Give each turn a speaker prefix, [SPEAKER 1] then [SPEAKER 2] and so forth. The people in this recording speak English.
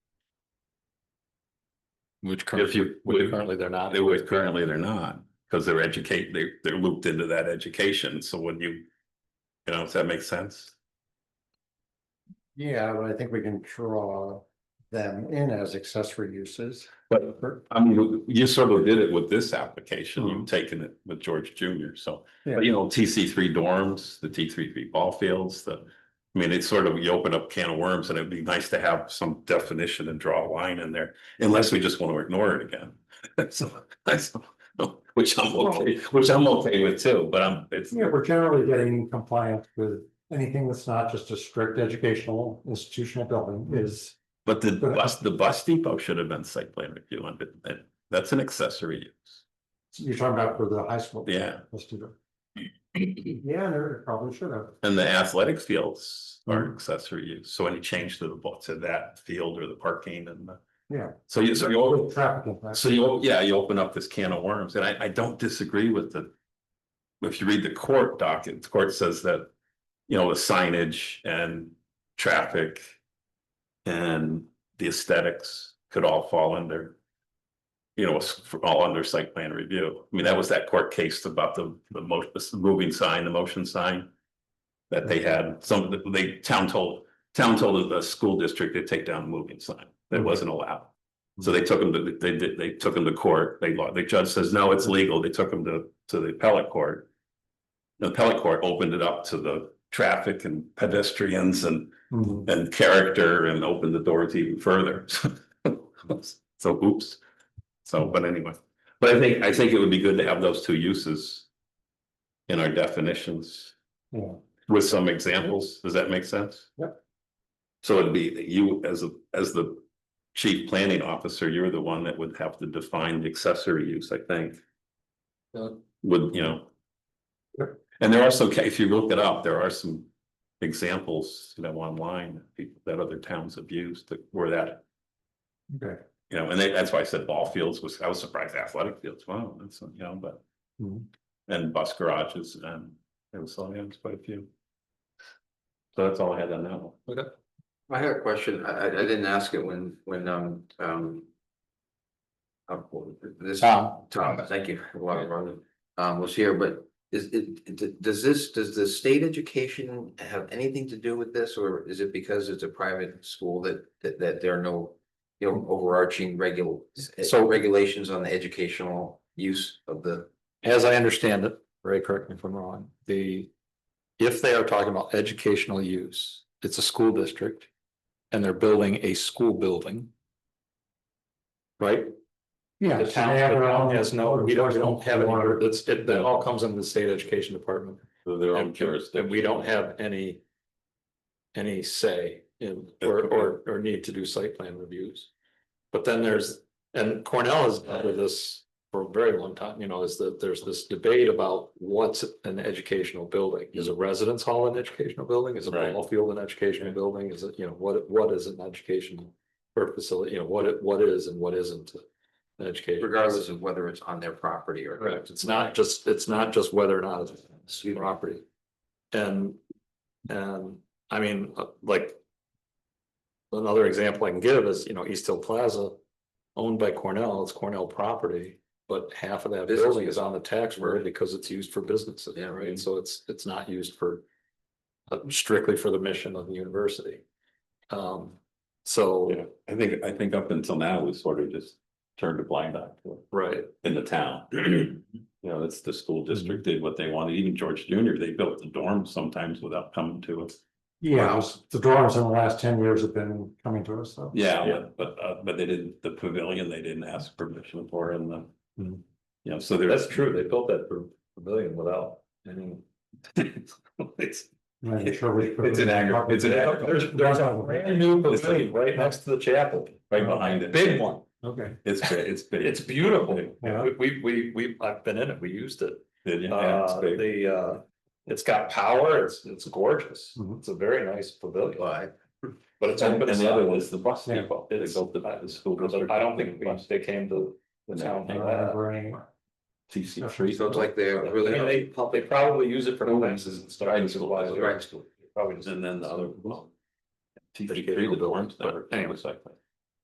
[SPEAKER 1] Which
[SPEAKER 2] If
[SPEAKER 1] currently,
[SPEAKER 2] you,
[SPEAKER 1] which
[SPEAKER 2] would-
[SPEAKER 1] currently they're not.
[SPEAKER 2] they would, currently they're not, because they're educate, they, they're looped into that education, so when you. You know, if that makes sense?
[SPEAKER 3] Yeah, but I think we can draw them in as accessory uses.
[SPEAKER 2] But I mean, you sort of did it with this application, you've taken it with George Junior, so.
[SPEAKER 3] Mm-hmm. Yeah.
[SPEAKER 2] But you know, TC three dorms, the T three three ball fields, the. I mean, it's sort of, you open up a can of worms and it'd be nice to have some definition and draw a line in there, unless we just want to ignore it again. So, that's, which I'm okay, which I'm okay with too, but I'm, it's.
[SPEAKER 3] Yeah, we're generally getting compliant with anything that's not just a strict educational institutional
[SPEAKER 1] Hmm.
[SPEAKER 3] building is.
[SPEAKER 2] But the
[SPEAKER 3] But-
[SPEAKER 2] bus, the bus depot should have been site plan review on it, that, that's an accessory use,
[SPEAKER 3] You're talking about for the high school.
[SPEAKER 2] yeah,
[SPEAKER 3] Let's do that. Yeah, there probably should have.
[SPEAKER 2] and the athletic fields are accessory use, so any change to the, bu- to that field or the parking and the.
[SPEAKER 3] Yeah.
[SPEAKER 2] So you, so you, open-
[SPEAKER 3] Traffic impact.
[SPEAKER 2] so you, yeah, you open up this can of worms, and I, I don't disagree with the. If you read the court docket, the court says that, you know, the signage and traffic. And the aesthetics could all fall under. You know, s- for- all under site plan review. I mean, that was that court case about the, the mo- the moving sign, the motion sign. That they had, some, of the- they, town told, town told the school district to take down the moving sign. That wasn't allowed. So they took them to, they did, they took them to court. They, lo- the judge says, no, it's legal. They took them to, to the appellate court. The appellate court opened it up to the traffic and pedestrians and
[SPEAKER 3] Mhm.
[SPEAKER 2] and character and open the doors even further. So oops. So, but anyway, but I think, I think it would be good to have those two uses in our definitions
[SPEAKER 3] Yeah,
[SPEAKER 2] with some examples. Does that make sense?
[SPEAKER 3] Yep.
[SPEAKER 2] So it'd be you as, a as the chief planning officer, you're the one that would have to define the accessory use, I think.
[SPEAKER 1] Yeah.
[SPEAKER 2] Would, you know.
[SPEAKER 3] Uh, Yep.
[SPEAKER 2] And there are some, ca- if you look it up, there are some examples, you know, online, that people that other towns have used that where that,
[SPEAKER 3] okay.
[SPEAKER 2] you know, and they- that's why I said ball fields was, I was surprised athletic fields, wow, that's, you know, but.
[SPEAKER 3] Mhm.
[SPEAKER 1] Mm-hmm.
[SPEAKER 2] And bus garages and it was, so, yeah, it's quite a few. So that's all I had on that one.
[SPEAKER 4] I had a question. I, I, I didn't ask it when, when, um, um. uh, This,
[SPEAKER 1] Tom.
[SPEAKER 4] Tom, thank you. a lot of running, Um, was here, but is, it, d- does this, does the state education have anything to do with this? Or is it because it's a private school that, that, that there are no, you know, overarching regul, so regulations on the educational use of the?
[SPEAKER 1] As I understand it, Ray, correct me if I'm wrong, the, if they are talking about educational use, it's a school district. And they're building a school building. Right?
[SPEAKER 3] Yeah.
[SPEAKER 1] The
[SPEAKER 3] so
[SPEAKER 1] town,
[SPEAKER 3] they have
[SPEAKER 1] the
[SPEAKER 3] their
[SPEAKER 1] town
[SPEAKER 3] own-
[SPEAKER 1] has no, we don't, we don't have any, it's, it, that all comes into the state education department.
[SPEAKER 2] So Their own
[SPEAKER 1] And and
[SPEAKER 2] jurisdiction.
[SPEAKER 1] we don't have any. Any say in, or, or, or need to do site plan reviews. But then there's, and Cornell has dealt with this for a very long time, you know, is that there's this debate about what's an educational building? Is a residence hall an educational building? Is a
[SPEAKER 2] Right.
[SPEAKER 1] ball field an educational building? Is it, you know, what, what is an educational? Or facility, you know, what, it what is and what isn't an education?
[SPEAKER 4] Regardless of whether it's on their property or.
[SPEAKER 1] Correct, it's not just, it's not just whether or not it's your property. And, and, I mean, uh, like. Another example I can give is, you know, East Hill Plaza, owned by Cornell, it's Cornell property. But half of that
[SPEAKER 4] Business
[SPEAKER 1] building is on the tax roll because it's used for businesses,
[SPEAKER 4] Yeah.
[SPEAKER 1] right, so it's, it's not used for. uh, Strictly for the mission of the university. Um,
[SPEAKER 2] Yeah,
[SPEAKER 1] so,
[SPEAKER 2] I think, I think up until now, we sort of just turned a blind eye to it.
[SPEAKER 1] right,
[SPEAKER 2] in the town. You know, it's the school
[SPEAKER 1] Mm-hmm.
[SPEAKER 2] district did what they wanted, even George Junior, they built the dorms sometimes without coming to us.
[SPEAKER 3] Yeah, it's- the drawings in the last ten years have been coming to us, so.
[SPEAKER 2] Yeah, but- but uh, but they didn't, the pavilion, they didn't ask permission for and the.
[SPEAKER 1] Mhm.
[SPEAKER 2] You know, so there.
[SPEAKER 1] that's true, they built that for pavilion without any.
[SPEAKER 2] It's,
[SPEAKER 3] I'm sure we could-
[SPEAKER 2] It's an agri- it's an agri-
[SPEAKER 3] There's, there's a.
[SPEAKER 1] Brand new
[SPEAKER 2] It's
[SPEAKER 1] pavilion right next to the chapel,
[SPEAKER 2] right behind it.
[SPEAKER 1] big one,
[SPEAKER 3] Okay.
[SPEAKER 2] It's, big, it's big.
[SPEAKER 1] it's beautiful.
[SPEAKER 3] Yeah.
[SPEAKER 1] We, we, we, we, I've been in it, we used it,
[SPEAKER 2] Yeah, it's
[SPEAKER 1] uh,
[SPEAKER 2] big.
[SPEAKER 1] the, uh, it's got power, it's, it's gorgeous,
[SPEAKER 3] Mhm.
[SPEAKER 1] it's a very nice pavilion,
[SPEAKER 4] But
[SPEAKER 1] but it's
[SPEAKER 2] Mm-hmm. And
[SPEAKER 1] open.
[SPEAKER 2] and the other was the bus
[SPEAKER 3] Yeah.
[SPEAKER 2] depot, they
[SPEAKER 1] It's-
[SPEAKER 2] built the, the school
[SPEAKER 1] But
[SPEAKER 2] district.
[SPEAKER 1] I don't think we- they came to the town
[SPEAKER 3] I
[SPEAKER 1] for
[SPEAKER 3] don't
[SPEAKER 1] that.
[SPEAKER 3] remember anymore.
[SPEAKER 2] TC three.
[SPEAKER 4] So it's like they're
[SPEAKER 1] I mean,
[SPEAKER 4] really.
[SPEAKER 1] they, prob- they probably use it for classes and stuff,
[SPEAKER 2] Right.
[SPEAKER 1] which is why they're
[SPEAKER 4] Right.
[SPEAKER 1] probably just.
[SPEAKER 2] And then the other.
[SPEAKER 1] Educational buildings, but anyway.
[SPEAKER 2] Anyway,